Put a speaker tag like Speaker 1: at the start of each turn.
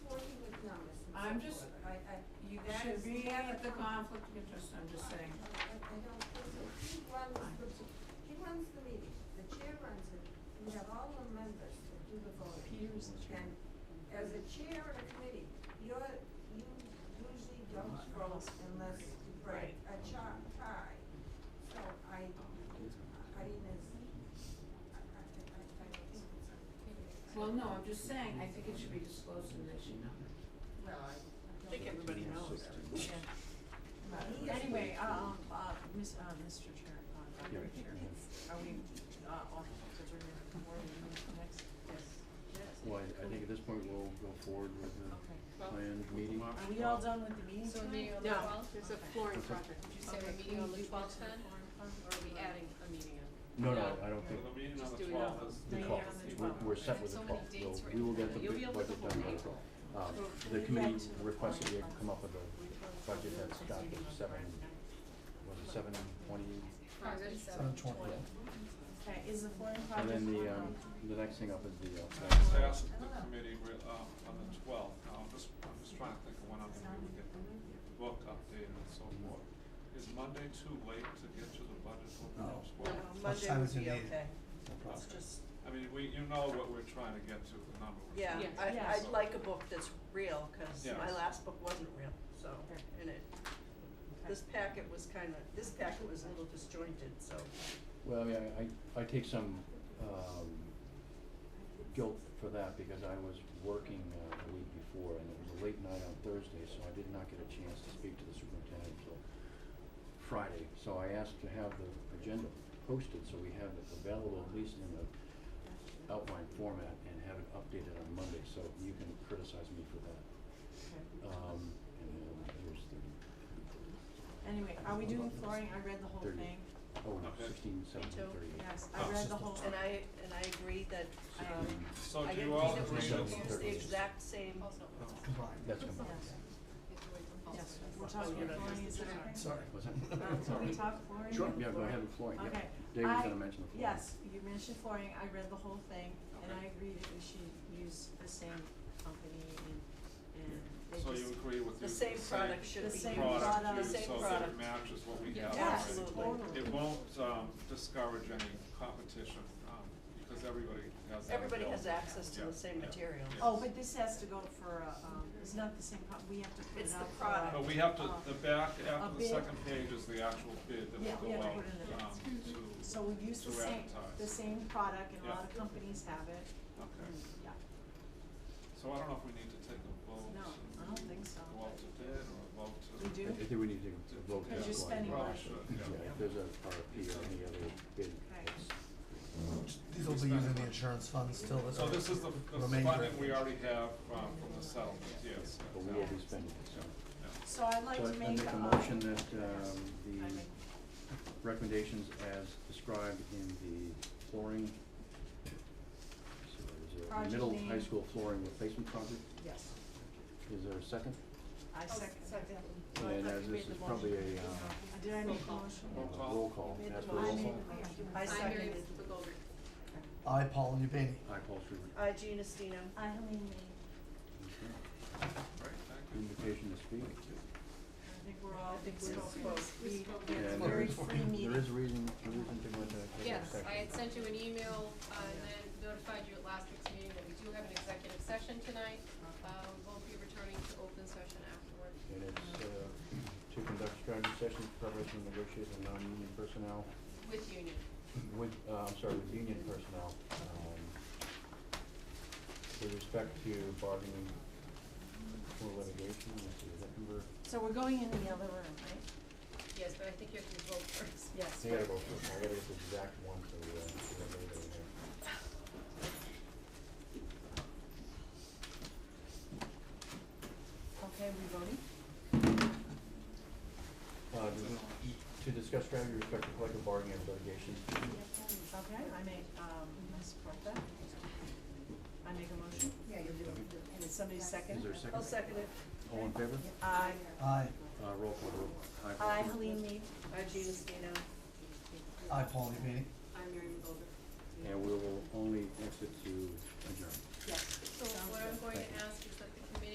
Speaker 1: I'm just, I, I, you guys
Speaker 2: Should be
Speaker 1: can't,
Speaker 2: at the conflict of interest, I'm just saying.
Speaker 1: I, I don't think so. He runs the, he runs the meeting, the chair runs it, we have all the members that do the voting.
Speaker 3: Peter's the chair.
Speaker 1: And as a chair of a committee, you're, you usually don't vote unless you break a cha- tie. So I, I mean, it's, I, I, I, I don't think it's. a-
Speaker 2: Well, no, I'm just saying, I think it should be disclosed and that you know.
Speaker 1: Well, I.
Speaker 3: I think everybody knows.
Speaker 4: Yeah.
Speaker 1: He is-
Speaker 3: Anyway, uh, um, uh, Miss, uh, Mr. Chair, uh, Dr.
Speaker 4: Yeah.
Speaker 3: Chair, are we, uh, off, because we're gonna, we're gonna move to next, yes, yes.
Speaker 4: Well, I, I think at this point, we'll go forward with
Speaker 3: Okay.
Speaker 4: the
Speaker 5: Well-
Speaker 4: planned meeting.
Speaker 3: Are we all done with the meeting
Speaker 5: So
Speaker 3: tonight?
Speaker 5: meeting on the
Speaker 3: No.
Speaker 5: twelfth, there's a
Speaker 3: Okay.
Speaker 5: flooring
Speaker 4: Okay.
Speaker 5: project, did you say
Speaker 3: Okay.
Speaker 5: we're meeting on the
Speaker 3: Please
Speaker 5: twelfth
Speaker 3: go
Speaker 5: then?
Speaker 3: to
Speaker 5: Or
Speaker 3: forum.
Speaker 5: are we adding a meeting on?
Speaker 4: No, no,
Speaker 3: No.
Speaker 4: I don't
Speaker 6: So
Speaker 4: think,
Speaker 6: the meeting on
Speaker 5: Just
Speaker 6: the
Speaker 5: do it
Speaker 6: twelfth
Speaker 5: all.
Speaker 6: is.
Speaker 4: the
Speaker 3: Meeting
Speaker 4: twelfth,
Speaker 3: on the
Speaker 6: See,
Speaker 4: we're, we're
Speaker 3: 12th.
Speaker 6: we're-
Speaker 4: set with the
Speaker 5: So many
Speaker 4: twelfth,
Speaker 5: dates
Speaker 4: we'll,
Speaker 5: written
Speaker 4: we will get the
Speaker 5: down. You'll
Speaker 4: big
Speaker 5: be able to
Speaker 4: budget done by
Speaker 5: go over
Speaker 4: the
Speaker 5: April.
Speaker 4: twelfth.
Speaker 3: So can we go
Speaker 4: Um, the committee
Speaker 3: to the
Speaker 4: requested
Speaker 3: point
Speaker 4: they come up with
Speaker 3: of-
Speaker 4: a budget that's got the seven, was it seven twenty?
Speaker 5: Friday,
Speaker 7: Seven twenty.
Speaker 3: Okay, is the flooring
Speaker 4: And
Speaker 3: project?
Speaker 4: then the, um, the next thing up is the, uh, planned-
Speaker 6: I asked the committee, we're, uh, on the twelfth, now, I'm just, I'm just trying to think of when I'm gonna be able to get the book updated and so forth. Is Monday too late to get to the budget book on the
Speaker 7: No.
Speaker 8: Um,
Speaker 6: twelfth?
Speaker 7: Much
Speaker 3: Monday
Speaker 7: time
Speaker 3: would
Speaker 7: is
Speaker 3: be
Speaker 7: needed.
Speaker 3: okay,
Speaker 7: No problem.
Speaker 3: it's just,
Speaker 6: I mean, we, you know what we're trying to get to, the number we're
Speaker 8: Yeah,
Speaker 6: trying
Speaker 5: Yes.
Speaker 6: to.
Speaker 8: I,
Speaker 6: get to,
Speaker 8: I'd
Speaker 6: so-
Speaker 8: like a book that's real, cause
Speaker 6: Yeah.
Speaker 8: my last book wasn't real, so,
Speaker 3: Okay.
Speaker 8: and it,
Speaker 3: okay.
Speaker 8: this packet was kinda, this packet was a little disjointed, so.
Speaker 4: Well, I mean, I, I, I take some, um, guilt for that because I was working, uh, the week before and it was a late night on Thursday, so I did not get a chance to speak to the superintendent until Friday. So I asked to have the agenda posted, so we have it available at least in the outline format and have it updated on Monday, so you can criticize me for that. Um, and then there's the,
Speaker 3: Anyway, are we doing flooring, I read the whole
Speaker 4: Thirty.
Speaker 3: thing,
Speaker 4: oh,
Speaker 6: Okay.
Speaker 4: sixteen, seventeen,
Speaker 8: too,
Speaker 4: thirty-eight.
Speaker 3: yes,
Speaker 6: Oh,
Speaker 3: I read the
Speaker 7: system.
Speaker 3: whole.
Speaker 8: And I, and I agree that, um,
Speaker 4: Sixteen.
Speaker 6: So
Speaker 8: I
Speaker 6: Oh, do
Speaker 8: didn't
Speaker 6: you all
Speaker 8: think that
Speaker 6: agree
Speaker 8: we should
Speaker 4: that-
Speaker 8: use the
Speaker 6: that?
Speaker 4: Thirty.
Speaker 8: exact same,
Speaker 6: No.
Speaker 7: Combined.
Speaker 4: That's gonna be.
Speaker 3: Yes. Yes, we're talking
Speaker 8: you're not
Speaker 3: flooring,
Speaker 8: using
Speaker 3: is
Speaker 8: the
Speaker 3: it?
Speaker 7: Sorry.
Speaker 4: Was that?
Speaker 3: Um, Can we talk flooring?
Speaker 4: Sure,
Speaker 3: and
Speaker 4: yeah, go
Speaker 3: flooring?
Speaker 4: ahead with flooring, yeah.
Speaker 3: Okay.
Speaker 4: Dave was
Speaker 3: I-
Speaker 4: gonna mention the flooring.
Speaker 3: Yes, you mentioned flooring, I read the whole thing, and I
Speaker 6: Okay.
Speaker 3: agree that we should use the same company and, and they just.
Speaker 6: So you agree with
Speaker 8: the
Speaker 6: using
Speaker 8: same product should
Speaker 3: The
Speaker 8: be
Speaker 6: the
Speaker 8: used,
Speaker 6: same
Speaker 3: same
Speaker 6: product,
Speaker 3: product,
Speaker 6: used
Speaker 8: the same
Speaker 6: so that it
Speaker 8: product.
Speaker 6: matches what we
Speaker 5: Yeah.
Speaker 6: have already.
Speaker 3: Yes,
Speaker 8: Absolutely.
Speaker 3: totally.
Speaker 6: It won't, um, discourage any competition, um, because everybody has that
Speaker 8: Everybody has
Speaker 6: available.
Speaker 8: access to
Speaker 6: Yeah,
Speaker 8: the same
Speaker 6: yeah,
Speaker 8: material.
Speaker 6: yeah.
Speaker 3: Oh, but this has to go for a, um, it's not the same co- we have to put
Speaker 8: It's
Speaker 3: it
Speaker 8: the
Speaker 3: out for a.
Speaker 8: product.
Speaker 6: But we have to,
Speaker 3: uh,
Speaker 6: the back,
Speaker 3: a
Speaker 6: after the
Speaker 3: bid.
Speaker 6: second page is the actual bid that
Speaker 3: Yeah,
Speaker 6: will
Speaker 3: we
Speaker 6: go
Speaker 3: have to
Speaker 6: out, um,
Speaker 3: put it in there.
Speaker 6: to,
Speaker 3: So we use the
Speaker 6: to
Speaker 3: same,
Speaker 6: advertise.
Speaker 3: the same product and a
Speaker 6: Yeah.
Speaker 3: lot of companies have it, Mm,
Speaker 6: okay.
Speaker 3: yeah.
Speaker 6: So I don't know if we need to take a vote.
Speaker 3: No, I don't think so.
Speaker 6: and Go out to bid or vote to.
Speaker 3: We do?
Speaker 4: I think we need to vote that
Speaker 3: Because you're
Speaker 4: one.
Speaker 3: spending
Speaker 6: Probably
Speaker 3: money.
Speaker 6: should,
Speaker 4: Yeah,
Speaker 6: yeah.
Speaker 4: if there's a RFP or any other bid,
Speaker 3: Okay.
Speaker 4: it's-
Speaker 7: These will be using the insurance funds still. that
Speaker 6: So
Speaker 7: are
Speaker 6: this is the, the
Speaker 7: remainder.
Speaker 6: funding we already have from, from the settlement, yes.
Speaker 4: but we will be spending it, so.
Speaker 3: So I'd like
Speaker 4: So
Speaker 3: to
Speaker 4: I- I
Speaker 3: make a.
Speaker 4: make a
Speaker 3: um,
Speaker 4: motion that,
Speaker 3: yes,
Speaker 4: um, the-
Speaker 3: I make-
Speaker 4: Recommendations as described in the flooring, so there's a
Speaker 3: Project
Speaker 4: middle
Speaker 3: name.
Speaker 4: high school flooring replacement project,
Speaker 3: Yes,
Speaker 4: is there a second?
Speaker 3: I second.
Speaker 5: Oh, I
Speaker 4: And
Speaker 5: thought
Speaker 4: as this
Speaker 5: you made
Speaker 4: is
Speaker 5: the
Speaker 4: probably
Speaker 5: motion.
Speaker 4: a, uh,
Speaker 3: Uh, Did I make a
Speaker 5: Roll call.
Speaker 3: motion?
Speaker 6: Roll
Speaker 4: uh,
Speaker 6: call.
Speaker 4: roll call,
Speaker 3: Made the
Speaker 4: that's for roll
Speaker 3: motion.
Speaker 4: call.
Speaker 8: I
Speaker 5: I'm Mary
Speaker 8: seconded.
Speaker 5: Goldberg.
Speaker 7: I, Paul Nubini.
Speaker 4: Aye, Paul Schubert.
Speaker 8: I, Gina Stino.
Speaker 3: I only made,
Speaker 4: Okay.
Speaker 6: Great, thank you.
Speaker 4: Invitation to speak.
Speaker 3: I think we're all.
Speaker 8: I think we
Speaker 3: spoken.
Speaker 8: spoke.
Speaker 3: We-
Speaker 5: Yeah,
Speaker 3: it's
Speaker 4: And
Speaker 7: there
Speaker 3: very
Speaker 7: is-
Speaker 3: free meeting.
Speaker 4: There is reason, a reason to go into executive
Speaker 5: Yes,
Speaker 4: section.
Speaker 5: I had sent you an email uh, and then notified you at last week's meeting that we do have an executive session tonight. Uh, we won't be returning to open session afterward.
Speaker 4: And it's, uh, to conduct strategy sessions, preparation, and negotiation, with non-union personnel,
Speaker 5: With union.
Speaker 4: with, uh, I'm sorry, with union personnel, um, with respect to bargaining for litigation, Mr. Hickenberg.
Speaker 3: So we're going in the other room, right?
Speaker 5: Yes, but I think you have to vote first.
Speaker 3: Yes.
Speaker 4: I gotta go for it, I gotta get the exact one, so, uh, so that later in here.
Speaker 3: Okay, we voting?
Speaker 4: Uh, to- to discuss strategy with respect to collective bargaining and litigation,
Speaker 3: Okay, I make, um, I support that. I make a motion,
Speaker 1: Yeah, you'll do it.
Speaker 3: and is somebody
Speaker 4: is
Speaker 3: second?
Speaker 4: there a second?
Speaker 8: I'll second it.
Speaker 4: All in favor?
Speaker 3: I,
Speaker 7: I,
Speaker 4: Uh, roll call, roll. Aye, Paul
Speaker 3: I,
Speaker 4: Schubert.
Speaker 3: Helene Mead.
Speaker 8: I, Gina Stino.
Speaker 7: I, Paul Nubini.
Speaker 5: I'm Mary Goldberg.
Speaker 4: And we will only exit to adjourn.
Speaker 3: Yes.
Speaker 5: So what I'm going to ask is